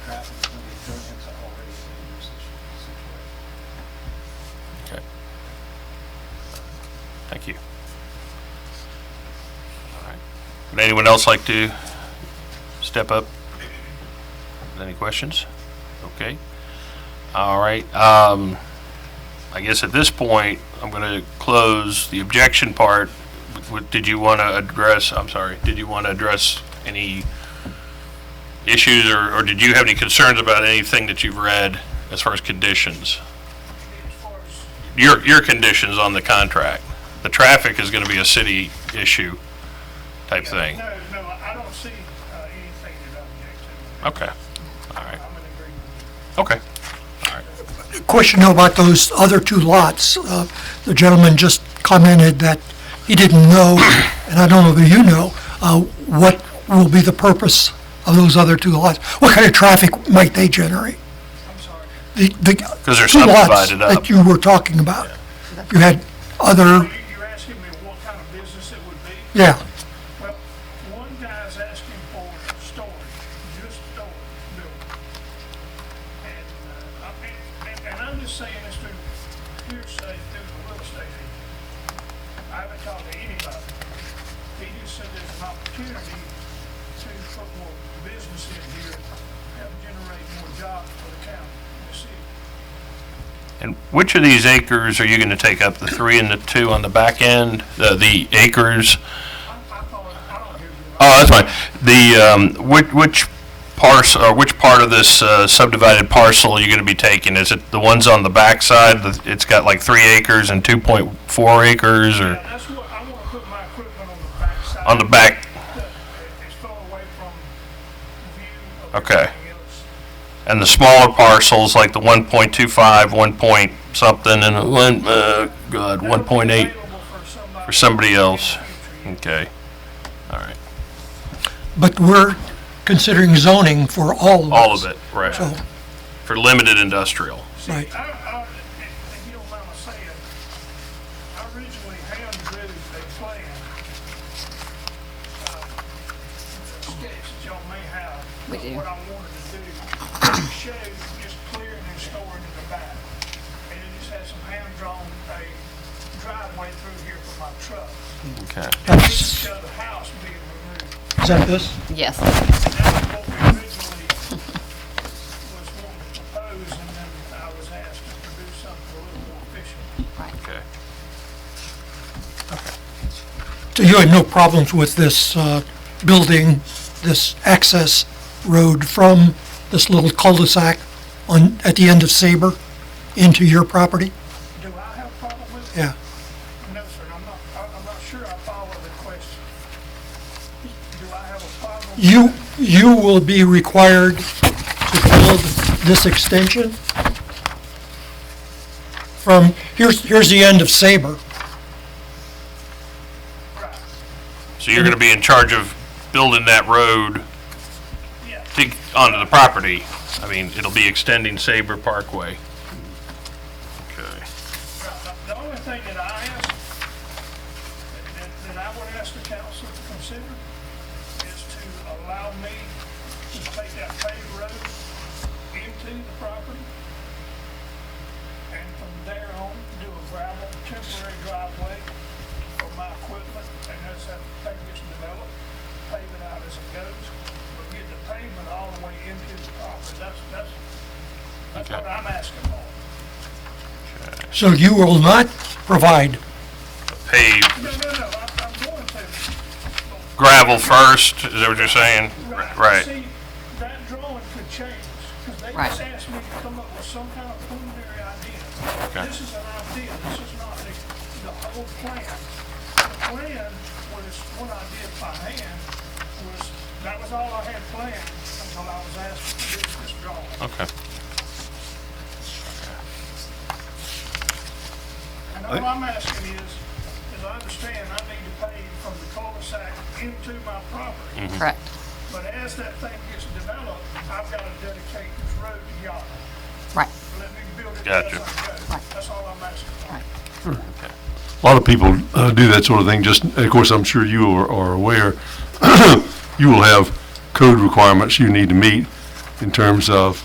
traffic is going to be thrown into already dangerous situ- situation. Okay. Thank you. All right. Would anyone else like to step up? Any questions? Okay. All right. Um, I guess at this point, I'm going to close the objection part. Would- Did you want to address, I'm sorry, did you want to address any issues or, or did you have any concerns about anything that you've read as far as conditions? your, your conditions on the contract. The traffic is gonna be a city issue type thing. No, no, I don't see uh, anything that I object Okay, all right, to. I'm in agreement. okay. Question though about those other two lots. Uh, The gentleman just commented that he didn't know, and I don't know that you know, uh, what will be the purpose of those other two lots? What kind of traffic might they generate? I'm sorry. The the they're two lots subdivided up. that you were talking about. You had You- other, You're asking me what kind of business it would be? yeah, Well, one guy's asking for storage, just storage building. And, uh, I mean, and, and I'm just saying this through hearsay, through the real estate agent. I haven't talked to anybody. He just said there's an opportunity to put more business in here, help generate more jobs for the county, and the city. And which of these acres are you gonna take up, the three and the two on the back end, the, the acres? I, I thought, I don't hear you. Oh, that's fine. The, um, which, which parcel, or which part of this uh, subdivided parcel are you gonna be taking? Is it the ones on the backside, that it's got like three acres and two point four acres, Yeah, or that's what, I wanna put my equipment on the backside. on the back? It's far away from view of Okay. everything else. and the smaller parcels, like the 1.25, 1 point something, and one, uh, God, That'll be 1.8 available for somebody for somebody else. in the future. Okay, all right, but we're considering zoning for all of those. all of it, right, So, for limited industrial. See, I, Right. I, if if you don't mind my saying, I originally hand drew a plan, uh, a sketch that y'all may have. We of do. What I wanted to do, to show just clearing and storing in the back. And it just had some hand drawn, a driveway through here for my truck. Okay. And it showed the house being removed. is that this? Yes. That's what we originally was wanting to propose, and then I was asked to produce something a little more efficient. Right. Okay. So you had no problems with this uh, building, this access road from this little cul-de-sac on, at the end of Saber into your property? Do I have a problem with it? Yeah. No, sir, I'm not, I- I'm not sure I follow the question. Do I have a problem? You, you will be required to build this extension from, here's, here's the end of Saber. Right, So you're gonna be in charge of building that road yeah, to- onto the property? I mean, it'll be extending Sabre Parkway. Okay. right. The only thing that I ask, that- that, that I would ask the council to consider is to allow me to take that paved road into the property and from there on, do a gravel, temporary driveway for my equipment, and that's how the thing gets developed, pave it out as it goes, but get the pavement all the way into the property, that's, that's, that's Okay. what I'm asking for. So you will not provide, Pave No, no, no, I- I'm going to, gravel first, is that what you're saying? Right, See, that drawing could change, because they Right. just asked me to come up with some kind of preliminary idea. Okay. This is an idea, this is not the, the whole plan. The plan was what I did by hand, was, that was all I had planned until I was asked to do this drawing. okay. And all I'm asking is, is I understand I need to pay from the cul-de-sac into my property. Mm-hmm. Correct. But as that thing gets developed, I've got to dedicate this road to y'all. Right. Let me build it Gotcha. as I go. Right. That's all I'm asking. Right. A lot of people uh, do that sort of thing, just, of course, I'm sure you are are aware, you will have code requirements you need to meet in terms of